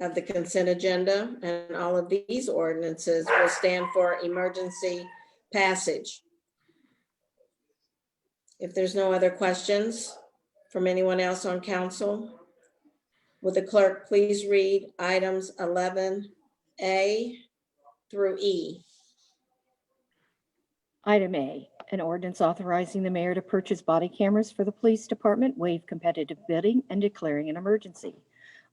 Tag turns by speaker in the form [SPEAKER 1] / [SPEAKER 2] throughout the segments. [SPEAKER 1] of the consent agenda, and all of these ordinances will stand for emergency passage. If there's no other questions from anyone else on council, would the clerk please read items 11A through E?
[SPEAKER 2] Item A, an ordinance authorizing the mayor to purchase body cameras for the police department, waive competitive bidding, and declaring an emergency.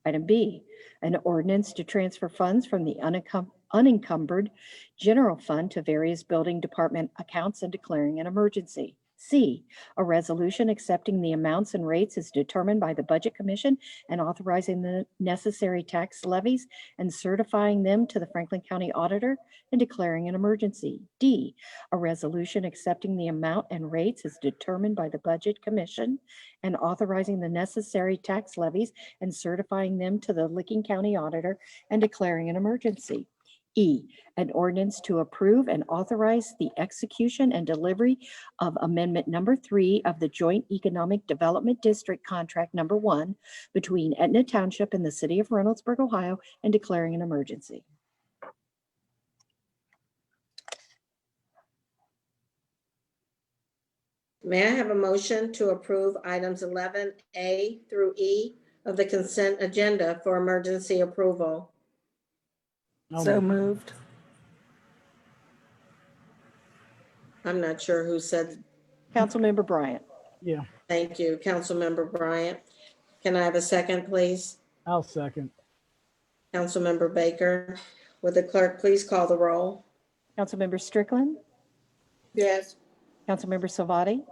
[SPEAKER 2] Item B, an ordinance to transfer funds from the unencum- unencumbered general fund to various building department accounts and declaring an emergency. C, a resolution accepting the amounts and rates as determined by the Budget Commission and authorizing the necessary tax levies and certifying them to the Franklin County Auditor and declaring an emergency. D, a resolution accepting the amount and rates as determined by the Budget Commission and authorizing the necessary tax levies and certifying them to the Licking County Auditor and declaring an emergency. E, an ordinance to approve and authorize the execution and delivery of Amendment Number Three of the Joint Economic Development District Contract Number One between Etna Township and the City of Reynoldsburg, Ohio, and declaring an emergency.
[SPEAKER 1] May I have a motion to approve items 11A through E of the consent agenda for emergency approval?
[SPEAKER 3] So moved.
[SPEAKER 1] I'm not sure who said,
[SPEAKER 2] Councilmember Bryant.
[SPEAKER 3] Yeah,
[SPEAKER 1] thank you, Councilmember Bryant. Can I have a second, please?
[SPEAKER 3] I'll second.
[SPEAKER 1] Councilmember Baker, would the clerk please call the roll?
[SPEAKER 2] Councilmember Strickland.
[SPEAKER 1] Yes.
[SPEAKER 2] Councilmember Salvati,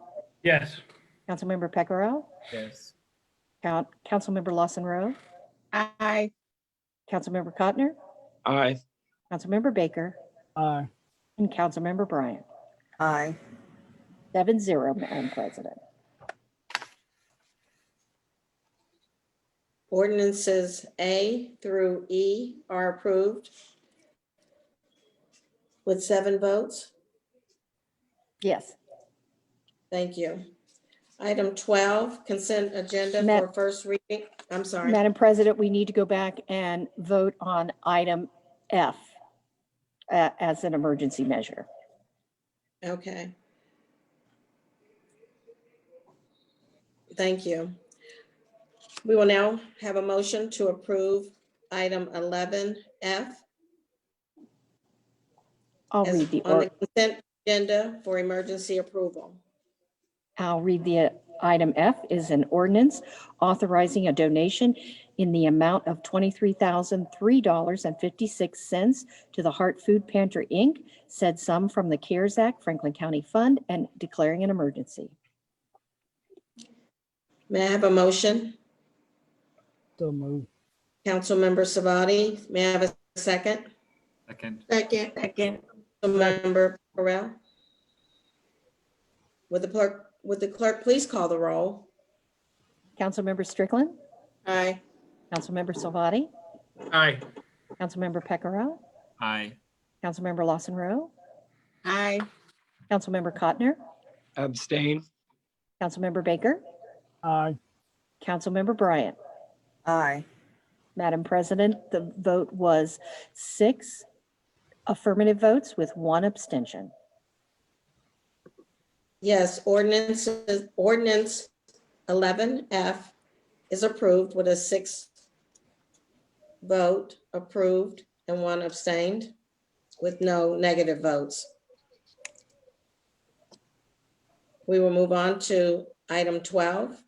[SPEAKER 4] Yes.
[SPEAKER 2] Councilmember Pecoro,
[SPEAKER 4] Yes.
[SPEAKER 2] Count, Councilmember Lawson Rowe,
[SPEAKER 5] Aye.
[SPEAKER 2] Councilmember Cotner,
[SPEAKER 4] Aye.
[SPEAKER 2] Councilmember Baker,
[SPEAKER 3] Aye.
[SPEAKER 2] and Councilmember Bryant.
[SPEAKER 5] Aye.
[SPEAKER 2] Seven zero, Madam President.
[SPEAKER 1] Ordinances A through E are approved with seven votes.
[SPEAKER 2] Yes,
[SPEAKER 1] Thank you. Item 12, consent agenda
[SPEAKER 2] Ma-
[SPEAKER 1] for first reading. I'm sorry.
[SPEAKER 2] Madam President, we need to go back and vote on item F uh, as an emergency measure.
[SPEAKER 1] Okay. Thank you. We will now have a motion to approve item 11F
[SPEAKER 2] I'll
[SPEAKER 1] as
[SPEAKER 2] read the,
[SPEAKER 1] on the
[SPEAKER 2] or-
[SPEAKER 1] consent agenda for emergency approval.
[SPEAKER 2] I'll read the uh, item F is an ordinance authorizing a donation in the amount of $23,003.56 to the Hart Food Pantry, Inc., said sum from the CARES Act Franklin County Fund and declaring an emergency.
[SPEAKER 1] May I have a motion?
[SPEAKER 3] So moved.
[SPEAKER 1] Councilmember Savati, may I have a second?
[SPEAKER 4] Second.
[SPEAKER 1] Second.
[SPEAKER 5] Second.
[SPEAKER 1] Member Correll? Would the clerk, would the clerk please call the roll?
[SPEAKER 2] Councilmember Strickland,
[SPEAKER 1] Aye.
[SPEAKER 2] Councilmember Salvati,
[SPEAKER 4] Aye.
[SPEAKER 2] Councilmember Pecoraro,
[SPEAKER 4] Aye.
[SPEAKER 2] Councilmember Lawson Rowe,
[SPEAKER 5] Aye.
[SPEAKER 2] Councilmember Cotner,
[SPEAKER 4] Abstain.
[SPEAKER 2] Councilmember Baker,
[SPEAKER 3] Aye.
[SPEAKER 2] Councilmember Bryant.
[SPEAKER 5] Aye.
[SPEAKER 2] Madam President, the vote was six affirmative votes with one abstention.
[SPEAKER 1] Yes, ordinance, ordinance eleven F is approved with a six vote approved and one abstained with no negative votes. We will move on to item twelve,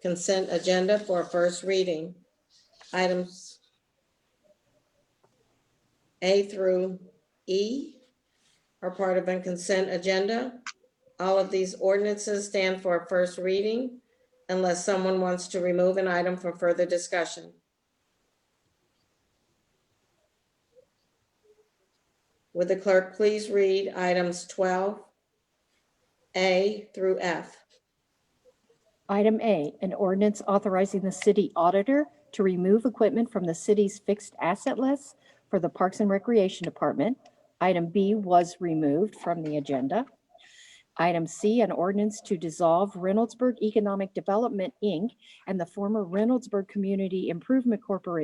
[SPEAKER 1] consent agenda for first reading. Items A through E are part of a consent agenda. All of these ordinances stand for a first reading unless someone wants to remove an item for further discussion. Would the clerk please read items 12A through F?
[SPEAKER 2] Item A, an ordinance authorizing the city auditor to remove equipment from the city's fixed asset list for the Parks and Recreation Department. Item B was removed from the agenda. Item C, an ordinance to dissolve Reynoldsburg Economic Development, Inc. and the former Reynoldsburg Community Improvement Corporation